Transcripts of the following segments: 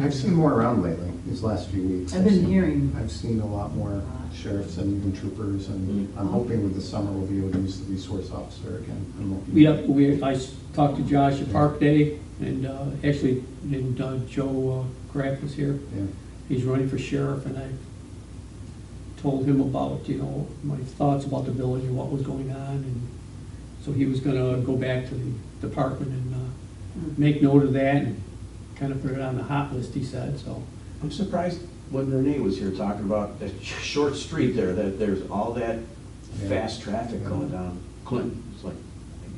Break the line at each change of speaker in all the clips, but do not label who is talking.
I've seen more around lately, these last few weeks.
I've been
seen-
hearing.
I've seen a lot more sheriffs and even troopers, and
Mm-hmm.
I'm hoping with the summer we'll be able to use the resource officer again. and we'll be-
We, up- we, I s- talked to Josh at Park Day, and, uh, actually, and uh, Joe uh, Graff was here.
Yeah.
He's running for sheriff, and I told him about, you know, my thoughts about the village and what was going on, and so he was gonna go back to the department and, uh, make note of that, and kind of put it on the hot list, he said, so.
I'm surprised when Renee was here talking about that sh- short street there, that there's all that
Yeah.
fast traffic going down Clinton. It's like,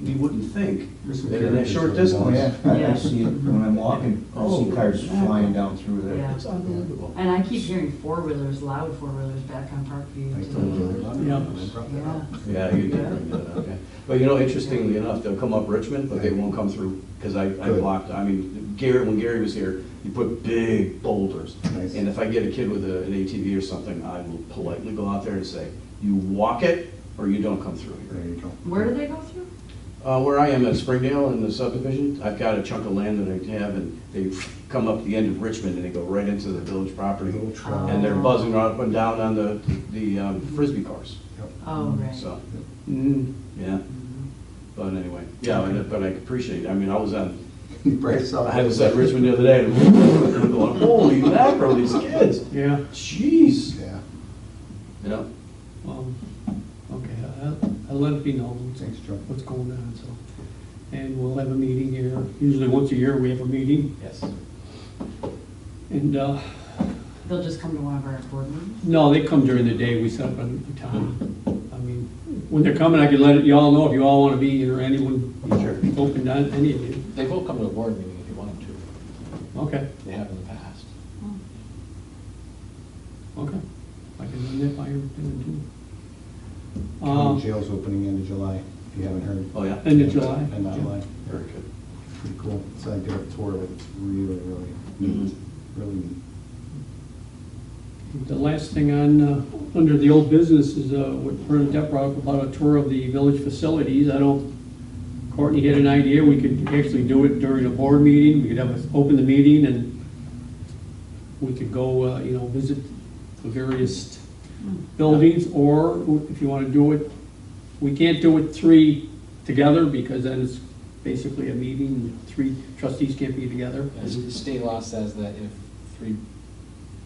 you wouldn't think
There's some
that in that
characters
short
that walk.
distance.
Yeah, I I see it when I'm walking, I see cars flying down through
Oh, Yeah.
there.
It's unbelievable.
And I keep hearing four-wheelers, loud four-wheelers back on Parkview.
I
too.
told you about it, and
Yeah.
I brought that up.
Yeah, you did bring that up, yeah. But you know, interestingly enough, they'll come up Richmond, but they won't come through, because I, I
Good.
blocked, I mean, Gary, when Gary was here, he put big boulders.
Nice.
And if I get a kid with a- an ATV or something, I will politely go out there and say, you walk it, or you don't come through here.
There you go.
Where do they go through?
Uh, where I am at Springdale in the subdivision, I've got a chunk of land that I have, and they come up the end of Richmond, and they go right into the village property.
Little
Oh.
trout.
And they're buzzing up and down on the, the um, frisbee cars,
Yep.
Oh,
Mm-hmm.
right.
so,
Mm,
yeah. But anyway, yeah, and- but I appreciate, it. I mean, I was on,
Bryce saw
I
that.
was at Richmond the other day, and I'm going, holy mackerel, these kids,
yeah,
jeez,
Yeah,
you know?
um, okay, I'll, I'll let it be known.
thanks, Joe.
what's going on, so. And we'll have a meeting here, usually once a year we have a meeting,
Yes.
and, uh,
They'll just come to one of our board meetings?
no, they come during the day, we set up a a time. I mean, when they're coming, I can let y'all know if you all wanna be here, anyone,
Sure.
open to any of you,
They will come to the board meeting if you want them to.
okay,
They have in the past.
okay. I can run that by you, then, too.
County
Uh,
jail's opening end of July, if you haven't heard.
Oh, yeah?
End of July?
End of July.
Very good.
Pretty cool. So I did a tour of it. It's really, really neat,
Mhm.
Mm-hmm.
really neat.
The last thing on, uh, under the old business is, uh, what Bernadette brought up about a tour of the village facilities. I don't, Courtney had an idea, we could actually do it during a board meeting, we could have, us open the meeting and we could go, uh, you know, visit the various buildings, or if you want to do it, we can't do it three together because then it's basically a meeting, three trustees can't be together.
As the State law says that if three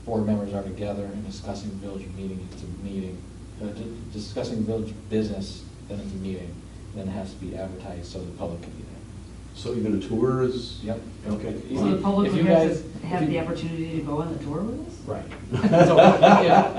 board members are together and discussing village meeting, it's a meeting. Uh, di- Discussing village business, then it's a meeting, then it has to be advertised so the public can be there.
So even a tour is?
Yep.
Okay.
So the
If
public
you
would have
guys-
to have
if
the
you-
opportunity to go on the tour with us?
Right. So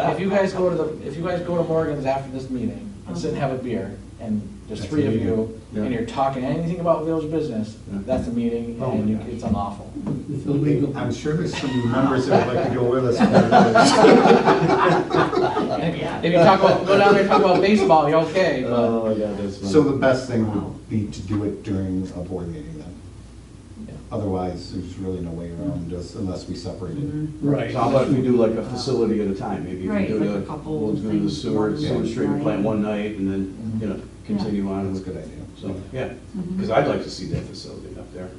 if- if you guys go to the, if you guys go to Morgan's after this meeting and sit and have a beer, and there's
That's
three
a
of
meeting.
you,
Yeah.
and you're talking anything about village business,
Yeah.
that's a meeting,
Oh my
and you-
gosh.
it's unlawful.
It's illegal.
I'm sure there's some members that would like to go with us.
And If if you talk about, go down there and talk about baseball, you're okay, but,
Oh, yeah, that's.
So the best thing would be to do it during a board meeting then.
Yeah.
Otherwise, there's really no way around this unless we separate it.
Mm-hmm.
Right.
So how about if we do like a facility at a time, maybe we
Right,
do
like
the,
a couple
we'll do the
things,
sewer,
one
sewer treatment
night.
plant one night, and then, you know, continue on.
That's a good idea.
So, yeah,
Mm-hmm.
because I'd like to see that facility up there.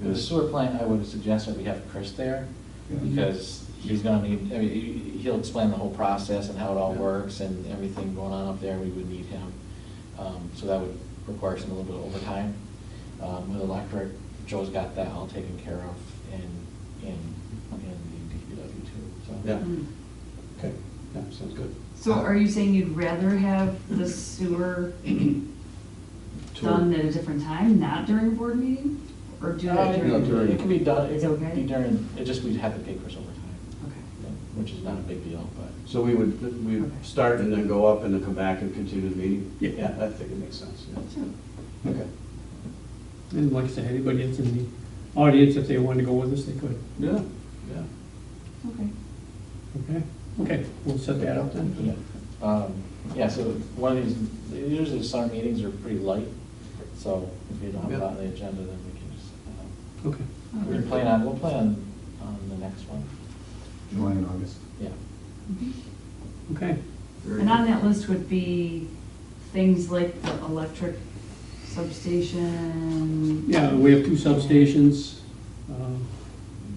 the sewer plant, I would suggest that we have Chris there,
Yeah.
because he's gonna need, I mean, he- he'll explain the whole process and how it all works and everything going on up there, we would need him. Um, So that would require some, a little bit of overtime. Um, With electric, Joe's got that all taken care of in, in, in the DPW too, so.
Yeah, okay, yeah, sounds good.
Hmm. So are you saying you'd rather have the sewer
Tour.
done at a different time, not during a board meeting? Or do
Uh,
it
it-
during?
during-
It can be done, it
It's
can
okay?
be during, it just, we'd have to pay Chris overtime,
Okay.
yeah, which is not a big deal, but.
So we would, we would
Okay.
start and then go up and then come back and continue the meeting?
Yeah.
I think it makes sense, yeah. Okay.
And like I said, anybody that's in the audience, if they wanted to go with us, they could,
Yeah, yeah.
Okay.
okay? Okay, we'll set that up then.
Um, Yeah, so one of these, usually the summer meetings are pretty light, so if you don't have it on the agenda, then we can just, uh,
Okay.
we can plan on, we'll plan on the next one,
July and August.
yeah.
Okay,
Very
And on
good.
that list would be things like the electric substation.
yeah, we have two substations, um,